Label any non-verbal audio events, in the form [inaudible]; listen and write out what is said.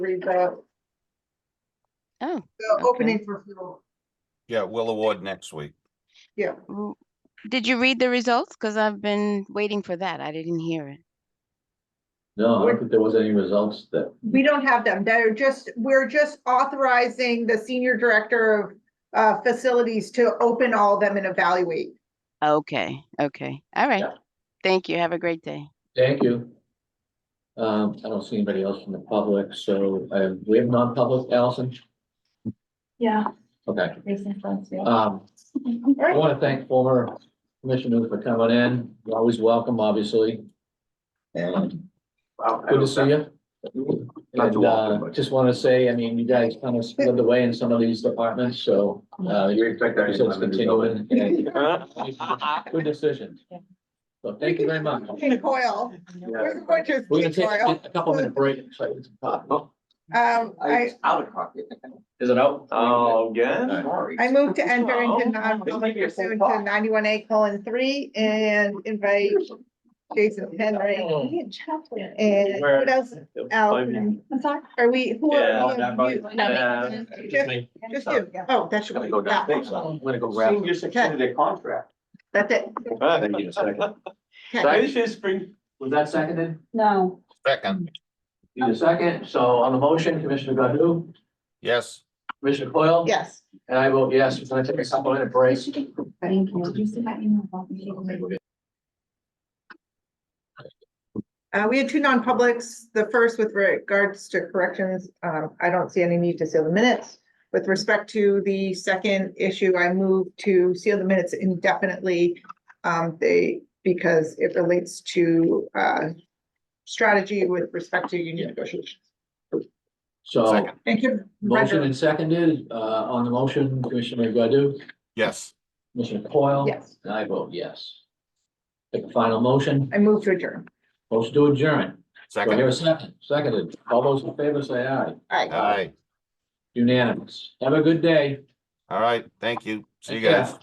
read the, Oh, the Okay. opening for fuel. Yeah, we'll award next week. Yeah, w- did you read the results? Because I've been waiting for that. I didn't hear it. No, I We're- don't think there was any results that, we don't have them. They're just, we're just authorizing the senior director of uh, facilities to open all of them and evaluate. Okay, okay, all right. Yeah. Thank you. Have a great day. thank you. Um, I don't see anybody else from the public, so, uh, we have non-public, Allison? Yeah, Okay, recent funds, yeah. um, I want to thank former commissioners for coming in, you're always welcome, obviously, and good to see you. Not too often, And, uh, but- just want to say, I mean, you guys kind of split the way in some of these departments, so, uh, You you're expect that anytime you go in. continuing. Uh, and- [laughs] Good decision. So thank you very much. Coil, where's the bunches? We're gonna take Coil? a couple minute break. so it's pop. Oh, Um, I, out of pocket. Is it out? Oh, again? Alright. Sorry. I moved to enter into They non-public make it so pursuant to far. ninety-one A colon three and invite Jason Henry. We had chocolate. And Where- what else? Al, I'm sorry. are we, who Oh, Yeah, are we? everybody- Yeah. Just just you. Oh, that's. Gotta go down. Yeah, I'm gonna go grab. Senior secured their contract. That's it. Thank you, second. Okay. This is spring. Was that seconded? No, Second, You the second. So on the motion, Commissioner Godu, yes, Commissioner Coyle? Yes. And I vote yes. We're gonna take a couple minute break. thank you. Did you see that email about me? Uh, we had two non-publics, the first with regards to corrections, um, I don't see any need to seal the minutes. With respect to the second issue, I move to seal the minutes indefinitely. Um, they, because it relates to, uh, strategy with respect to union negotiations. So Second. Thank you. motion and seconded, uh, on the motion, Commissioner Godu, yes, Commissioner Coyle? Yes, And I vote yes. Take a final motion. I move to adjourn. Motion to adjourn. Do I second, hear a second? Seconded. All those in favor say aye. All right. aye, Unanimous. Have a good day. all right, thank you, see you Take care. guys.